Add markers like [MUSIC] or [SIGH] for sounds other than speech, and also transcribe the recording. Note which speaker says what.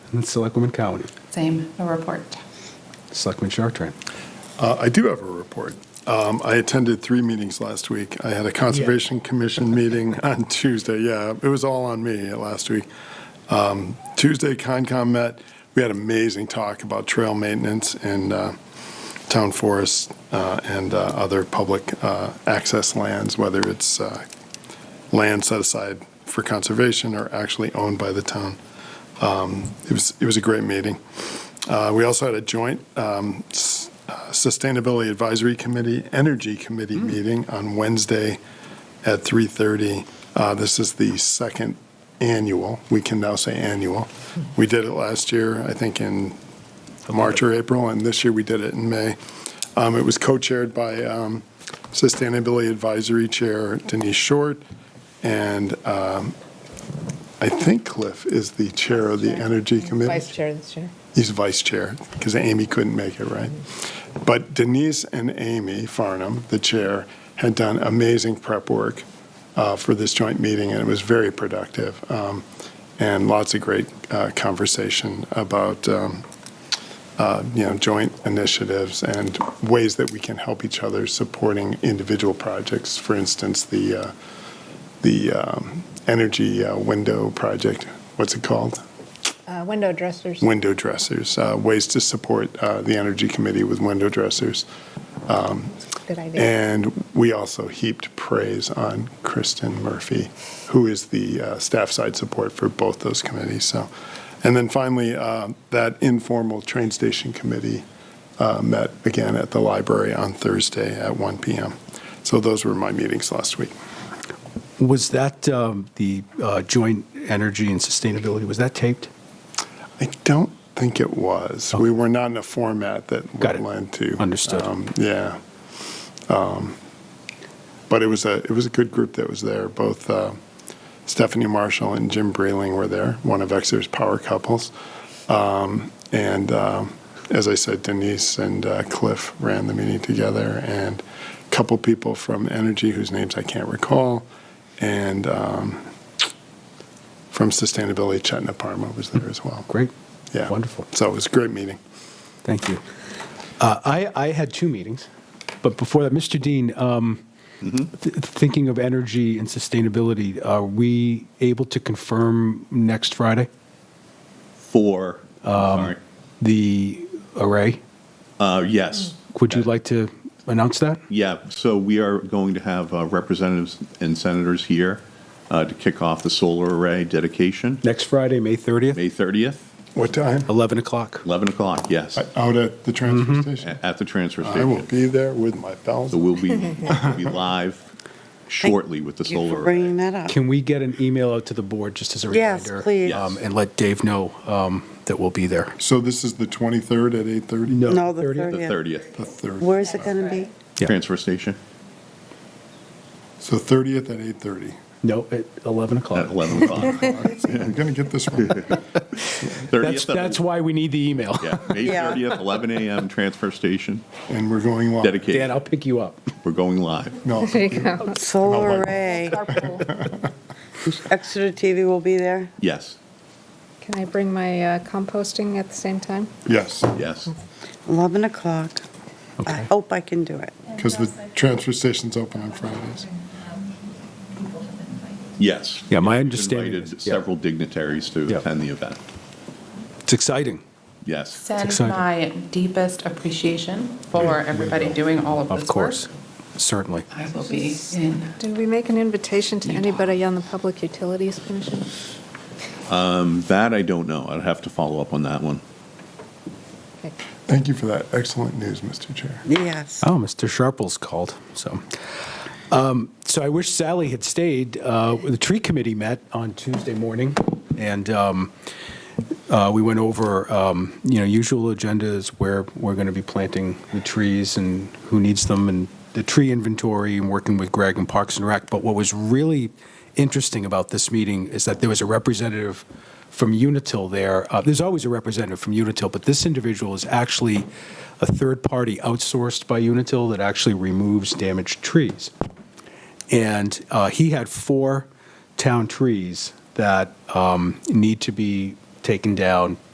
Speaker 1: and Selectwoman Cowan.
Speaker 2: Same, no report.
Speaker 1: Selectman Chartran.
Speaker 3: Uh, I do have a report. Um, I attended three meetings last week. I had a Conservation Commission meeting on Tuesday. Yeah, it was all on me last week. Um, Tuesday, Concom met. We had amazing talk about trail maintenance and uh, town forests uh, and uh, other public uh, access lands, whether it's uh, land set aside for conservation or actually owned by the town. Um, It was, it was a great meeting. Uh, We also had a joint um, s- uh, Sustainability Advisory Committee, Energy Committee
Speaker 4: Hmm.
Speaker 3: meeting on Wednesday at 3:30. Uh, This is the second annual, we can now say annual.
Speaker 4: Hmm.
Speaker 3: We did it last year, I think in March or April, and this year we did it in May. Um, It was co-chaired by um, Sustainability Advisory Chair Denise Short, and um, I think Cliff is the chair of the Energy Committee.
Speaker 4: Vice Chair this year.
Speaker 3: He's vice chair because Amy couldn't make it, right? But Denise and Amy Farnham, the chair, had done amazing prep work uh, for this joint meeting, and it was very productive. Um, and lots of great uh, conversation about um, uh, you know joint initiatives and ways that we can help each other supporting individual projects. For instance, the uh, the um, energy uh, window project. What's it called?
Speaker 4: Uh, Window dressers.
Speaker 3: window dressers, uh, ways to support uh, the Energy Committee with window dressers.
Speaker 4: Good idea.
Speaker 3: And we also heaped praise on Kristen Murphy, who is the uh, staff side support for both those committees. So, and then finally, uh, that informal train station committee uh, met again at the library on Thursday at 1 p.m. So those were my meetings last week.
Speaker 1: Was that um, the uh, joint energy and sustainability, was that taped? Oh.
Speaker 3: I don't think it was. We were not in a format that
Speaker 1: Got
Speaker 3: would
Speaker 1: it.
Speaker 3: lend to.
Speaker 1: Understood.
Speaker 3: um, Yeah. Um, But it was a, it was a good group that was there. Both uh, Stephanie Marshall and Jim Breling were there, one of Exeter's power couples. Um, And um, as I said, Denise and uh, Cliff ran the meeting together, and a couple people from Energy whose names I can't recall, and um, from Sustainability, Chetna Parma was there as well.
Speaker 1: Great.
Speaker 3: Yeah.
Speaker 1: Wonderful.
Speaker 3: So it was a great meeting.
Speaker 1: Thank you. Uh, I, I had two meetings, but before that, Mr. Dean, um, th- thinking of energy and sustainability, are we able to confirm next Friday
Speaker 5: for,
Speaker 1: Um,
Speaker 5: sorry,
Speaker 1: the array?
Speaker 5: Uh, yes.
Speaker 1: Would you like to announce that?
Speaker 5: Yeah, so we are going to have uh, representatives and senators here uh, to kick off the solar array dedication,
Speaker 1: Next Friday, May 30th,
Speaker 5: May 30th,
Speaker 3: What time?
Speaker 1: 11 o'clock.
Speaker 5: 11 o'clock, yes,
Speaker 1: Oh.
Speaker 3: I- Out at the transfer
Speaker 1: Mm-hmm.
Speaker 3: station.
Speaker 5: a- at the transfer
Speaker 3: I will
Speaker 5: station.
Speaker 3: be there with my bells.
Speaker 5: So we'll
Speaker 6: [LAUGHS]
Speaker 5: be, we'll be live shortly with the
Speaker 6: Thank you for
Speaker 5: solar array.
Speaker 6: bringing that up.
Speaker 1: Can we get an email out to the board just as a
Speaker 6: Yes,
Speaker 1: reminder?
Speaker 6: please.
Speaker 1: um, And let Dave know um, that we'll be there.
Speaker 3: So this is the 23rd at 8:30?
Speaker 6: No, the
Speaker 1: 30th.
Speaker 5: The
Speaker 6: 30th.
Speaker 5: 30th,
Speaker 3: The 3rd.
Speaker 6: Where's it going to be?
Speaker 1: Yeah.
Speaker 5: transfer station
Speaker 3: So 30th at 8:30.
Speaker 1: No, at 11
Speaker 5: at
Speaker 1: o'clock.
Speaker 5: 11
Speaker 6: [LAUGHS]
Speaker 5: o'clock.
Speaker 3: I'm going to get this one.
Speaker 5: 30th
Speaker 1: That's,
Speaker 5: at-
Speaker 1: that's why we need the email.
Speaker 5: Yeah, May
Speaker 6: Yeah.
Speaker 5: 30th, 11 a.m., transfer station,
Speaker 3: And we're going live.
Speaker 1: Dan,
Speaker 5: dedication.
Speaker 1: I'll pick you Oh, up.
Speaker 5: We're going live.
Speaker 3: No,
Speaker 6: Solar array. Exeter TV will be there.
Speaker 5: Yes,
Speaker 7: Can I bring my uh, composting at the same time?
Speaker 3: yes,
Speaker 5: yes.
Speaker 6: 11 o'clock. I
Speaker 1: Okay.
Speaker 6: hope I can do it.
Speaker 3: because the transfer station's open on Fridays.
Speaker 5: Yes.
Speaker 1: Yeah, my
Speaker 5: We've
Speaker 1: understanding
Speaker 5: invited
Speaker 1: is- yeah.
Speaker 5: Several dignitaries to
Speaker 1: Yeah.
Speaker 5: attend the event.
Speaker 1: It's exciting.
Speaker 5: Yes.
Speaker 2: Send
Speaker 1: exciting.
Speaker 2: my deepest appreciation for everybody doing all of this work.
Speaker 1: Of course, certainly.
Speaker 2: I will be in.
Speaker 7: Did we make an invitation to anybody on the Public Utilities Commission?
Speaker 5: Um, That I don't know. I'd have to follow up on that one.
Speaker 7: Okay.
Speaker 3: Thank you for that excellent news, Mr. Chair.
Speaker 6: Yes.
Speaker 1: Oh, Mr. Sharple's called, so. Um, So I wish Sally had stayed. Uh, The tree committee met on Tuesday morning, and um, uh, we went over, um, you know, usual agendas where we're going to be planting the trees and who needs them, and the tree inventory, and working with Greg and Parks and Rec. But what was really interesting about this meeting is that there was a representative from Unitil there. Uh, There's always a representative from Unitil, but this individual is actually a third party outsourced by Unitil that actually removes damaged trees. And uh, he had four town trees that um, need to be taken down